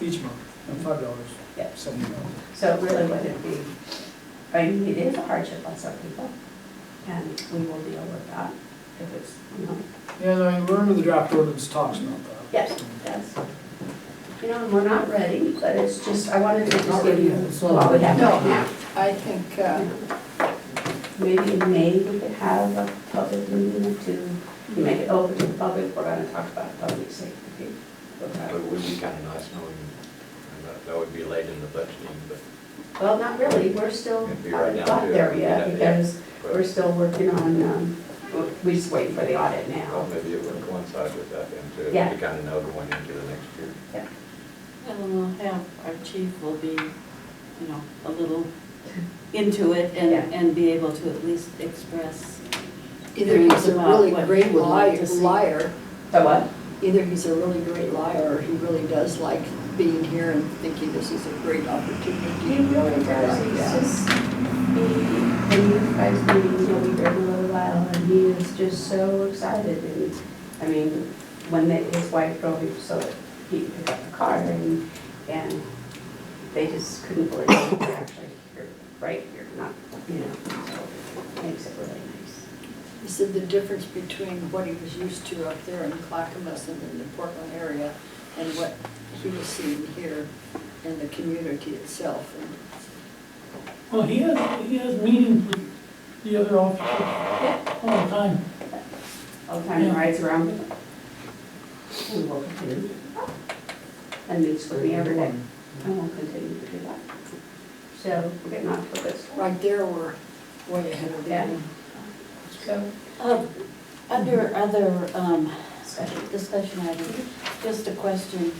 each month, and five dollars, Yep. seventy dollars. So it really wouldn't be, I mean, it is a hardship on some people, and we will deal with that if it's, you know, Yeah, no, I remember the draft ordinance talks about that. yes, yes. You know, and we're not ready, but it's just, I wanted to just give you what we have right now. No, I think, uh, Maybe in May, we could have a public meeting to, we make it open to the public, we're gonna talk about public safety. But it would be kind of nice knowing, and that- that would be late in the budgeting, but. Well, not really, we're still, It'd be right haven't now, got too. there yet, Yeah, yeah. because we're still working on, um, we're just waiting for the audit Well, now. maybe it would coincide with that and to Yeah. to kind of know going into the next year. and we'll have, our chief will be, you know, a little into it and, Yeah. and be able to at least express. Either he's a About really what great he would like liar, to see. liar, So what? either he's a really great liar, or he really does like being here and thinking this is a great He opportunity. really does, he's just, he, and you guys meeting, you know, we've been a little while, and he is just so excited, and, I mean, when they, his wife drove him, so he could pick up the car, and, and they just couldn't believe it, We're actually, you're right here, not, you know, so, makes it really nice. He said the difference between what he was used to up there in Clackamas and in the Portland area and what he was seeing here in the community itself. And Well, he has, he has meetings with the other officers all the time. All the time he Yeah. rides around with them. And will continue. And meets with me every day, and will continue to do that. Mm-hmm. So, we're getting off to a good start. Right there, we're way ahead of Yeah. them. So, Uh, Under other um, Discussion. discussion items, just a question.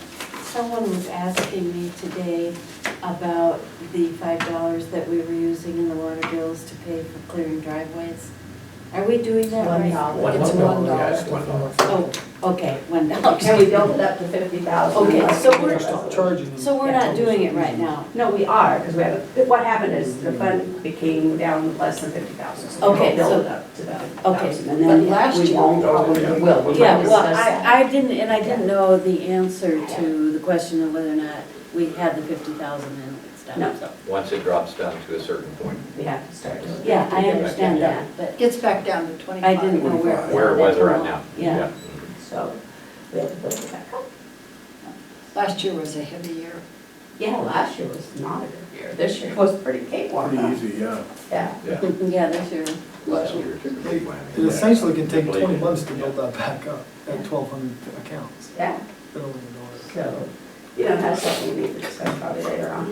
Someone was asking me today about the five dollars that we were using in the water bills to pay for clearing driveways. Are we doing that One right? dollar. One It's dollar. one Yeah, dollar. it's one dollar. Oh, okay, one dollar. Can we build it up to fifty thousand? Okay, so we're- Stop charging them. So we're not doing it right now? No, we are, because we have, what happened is the fund became down less than fifty thousand. Okay, so- Build it up to that Okay. thousand, and then But last we year- won't, probably Oh, Yeah. will. We Yeah, might well, discuss that. I, I didn't, and I didn't know the answer to the question of whether or not we had the fifty thousand and it's No. done, so. Once it drops down to a certain point, We have to start doing it. Yeah, I understand that, but Gets back down to twenty-five. I didn't know Uh, where. where it was right now. Yeah. So we have to build it back up. Last year was a heavy year. Yeah, last year was not a good year. This year was pretty cakewalk. Pretty easy, yeah. Yeah. Yeah. Yeah, that's your, Last year took a Mm-hmm. big whammy. It essentially can take Believe twenty it. months to build that back up at twelve hundred accounts. Yeah, They don't even know it. so, you know, that's something we need to discuss probably later on,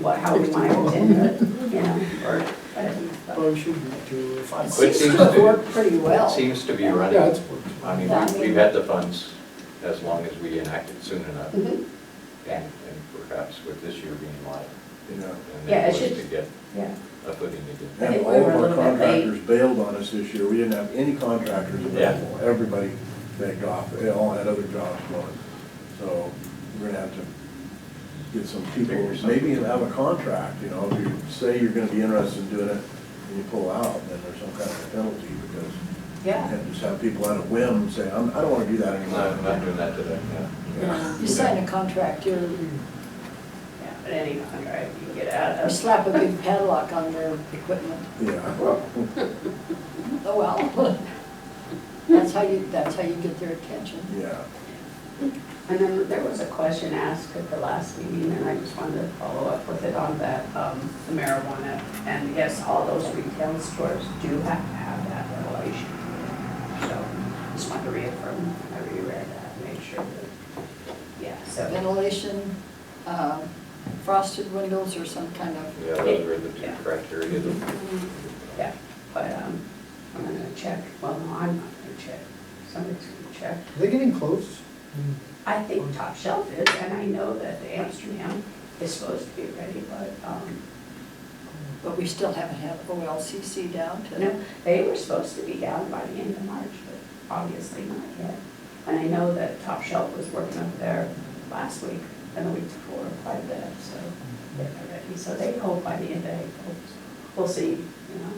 what, how we want to continue it, you know, or whatever. Probably should be two or five. It But it seems to seems have to- worked pretty well. It Seems to be Yeah, it's running. worked. I mean, Yeah, I we- mean- we've had the funds as long as we enact it soon enough. And, Mhm. and perhaps with this year being light. Yeah. And Yeah, it then should- to get Yeah, a footing again. I And think we all of were a our little bit late. contractors bailed on us this year. We didn't have any contractors available. Everybody begged off. They all had other jobs going. So we're gonna have to get some people, Figure something maybe have a out. contract, you know, if you say you're gonna be interested in doing it and you pull out, then there's some kind of a penalty because you yeah. can't just have people on a whim say, I'm, I don't wanna do that No, I'm anymore. not doing that today, yeah. Yeah. You sign a contract, you're, Yeah, but any contract you can get out you of. slap a big padlock on their equipment. Yeah. Oh, well. That's how you, that's how you get their attention. Yeah. And then there was a question asked at the last meeting, and I just wanted to follow up with it on that um, the marijuana. And yes, all those retail stores do have to have that regulation. So just wanted to reaffirm, I reread that, make sure that, yeah, so. Ventilation, um, frosted windows or some kind of, Yeah, those were the two criteria that. Yeah, but um, I'm gonna check, well, no, I'm not gonna check, somebody's gonna check. Are they getting close? Mm. I think Top Shelf is, and I know that the Amsterdam is supposed to be ready, but, um, but we still haven't had OLCC down you to. know, they were supposed to be down by the end of March, but obviously not yet. And I know that Top Shelf was working up there last week and the week before quite a bit, so they're ready. So they hope by the end of April, we'll see, you know.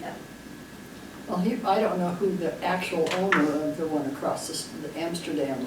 Yeah. Well, he, I don't know who the actual owner of the one across the, s- the Amsterdam